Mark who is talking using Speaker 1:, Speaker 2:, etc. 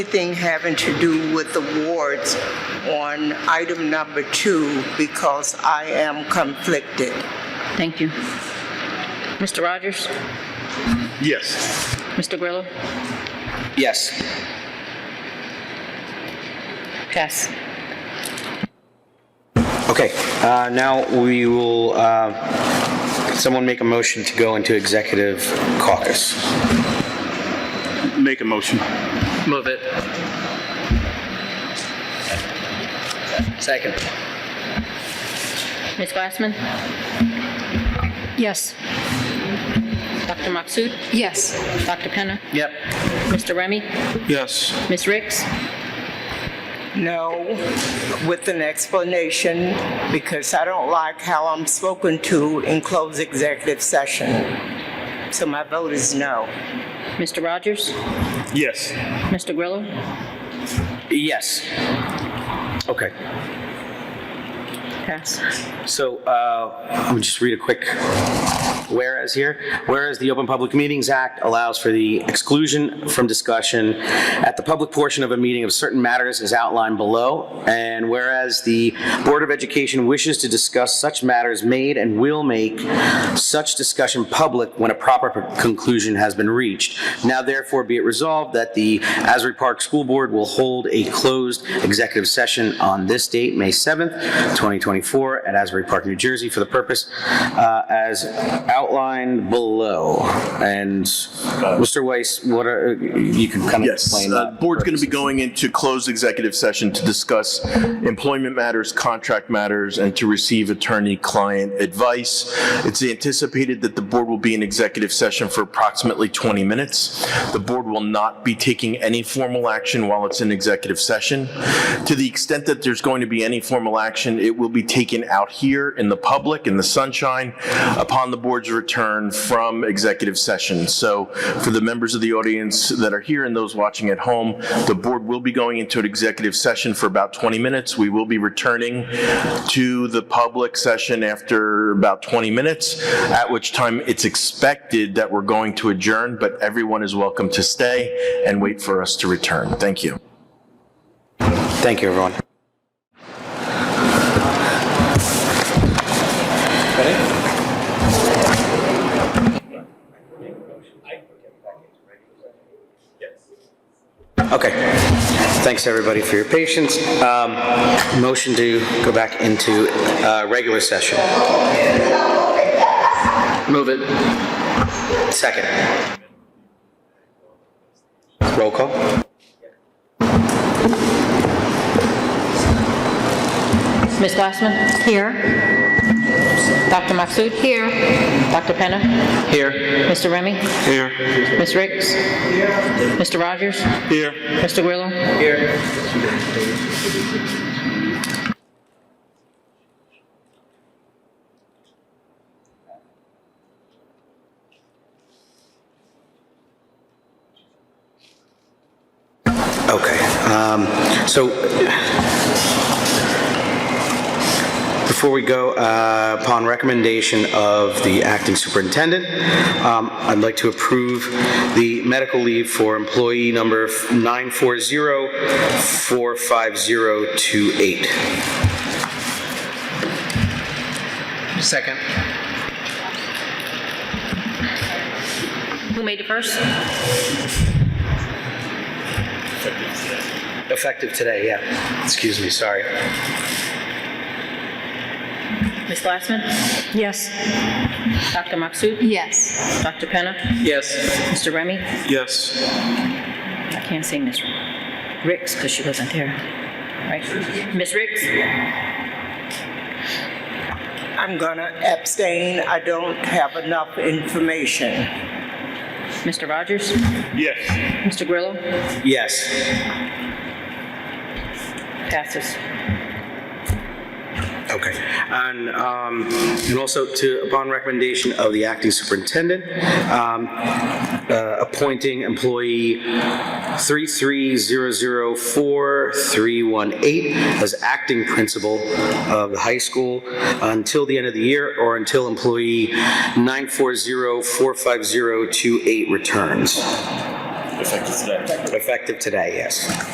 Speaker 1: Anything having to do with awards on item number two because I am conflicted.
Speaker 2: Thank you. Mr. Rogers?
Speaker 3: Yes.
Speaker 2: Mr. Grillo?
Speaker 4: Yes.
Speaker 2: Pass.
Speaker 4: Okay, uh, now we will, uh, someone make a motion to go into executive caucus.
Speaker 3: Make a motion.
Speaker 5: Move it.
Speaker 4: Second.
Speaker 2: Ms. Glassman?
Speaker 6: Yes.
Speaker 2: Dr. Maksud?
Speaker 6: Yes.
Speaker 2: Dr. Penna?
Speaker 4: Yep.
Speaker 2: Mr. Remy?
Speaker 3: Yes.
Speaker 2: Ms. Ricks?
Speaker 1: No, with an explanation because I don't like how I'm spoken to in closed executive session. So my vote is no.
Speaker 2: Mr. Rogers?
Speaker 3: Yes.
Speaker 2: Mr. Grillo?
Speaker 4: Yes. Okay,
Speaker 2: Pass.
Speaker 4: so uh, let me just read a quick whereas here. Whereas the Open Public Meetings Act allows for the exclusion from discussion at the public portion of a meeting of certain matters as outlined below, and whereas the Board of Education wishes to discuss such matters made and will make such discussion public when a proper conclusion has been reached. Now therefore be it resolved that the Asbury Park School Board will hold a closed executive session on this date, May 7th, 2024, at Asbury Park, New Jersey, for the purpose uh, as outlined below. And Mr. Weiss, what are, you can kind of
Speaker 7: Yes,
Speaker 4: explain
Speaker 7: uh,
Speaker 4: that.
Speaker 7: board's going to be going into closed executive session to discuss employment matters, contract matters, and to receive attorney-client advice. It's anticipated that the board will be in executive session for approximately 20 minutes. The board will not be taking any formal action while it's in executive session. To the extent that there's going to be any formal action, it will be taken out here in the public, in the sunshine, upon the board's return from executive session. So for the members of the audience that are here and those watching at home, the board will be going into an executive session for about 20 minutes. We will be returning to the public session after about 20 minutes, at which time it's expected that we're going to adjourn, but everyone is welcome to stay and wait for us to return. Thank you.
Speaker 4: Thank you, everyone. Okay. Thanks, everybody, for your patience. Um, Motion to go back into uh, regular session.
Speaker 5: Move it.
Speaker 4: Second. Roll call?
Speaker 2: Ms. Glassman?
Speaker 6: Here.
Speaker 2: Dr. Maksud? Here. Dr. Penna?
Speaker 5: Here.
Speaker 2: Mr. Remy?
Speaker 3: Here.
Speaker 2: Ms. Ricks? Mr. Rogers?
Speaker 3: Here.
Speaker 2: Mr. Grillo?
Speaker 4: Okay. um, So before we go, uh, upon recommendation of the acting superintendent, um, I'd like to approve the medical leave for employee number 940-45028.
Speaker 5: Second.
Speaker 2: Who made it first?
Speaker 4: Effective today, yeah. Excuse me, sorry.
Speaker 2: Ms. Glassman?
Speaker 6: Yes.
Speaker 2: Dr. Maksud?
Speaker 6: Yes.
Speaker 2: Dr. Penna?
Speaker 5: Yes.
Speaker 2: Mr. Remy?
Speaker 3: Yes.
Speaker 2: I can't say Ms. Ricks because she wasn't there. Right? Ms. Ricks?
Speaker 1: I'm gonna abstain. I don't have enough information.
Speaker 2: Mr. Rogers?
Speaker 3: Yes.
Speaker 2: Mr. Grillo?
Speaker 4: Yes.
Speaker 2: Passes.
Speaker 4: Okay. And, um, and also to, upon recommendation of the acting superintendent, um, uh, appointing employee 33004-318 as acting principal of the high school until the end of the year or until employee 940-45028 returns.
Speaker 6: Effective today.
Speaker 4: Effective today, yes.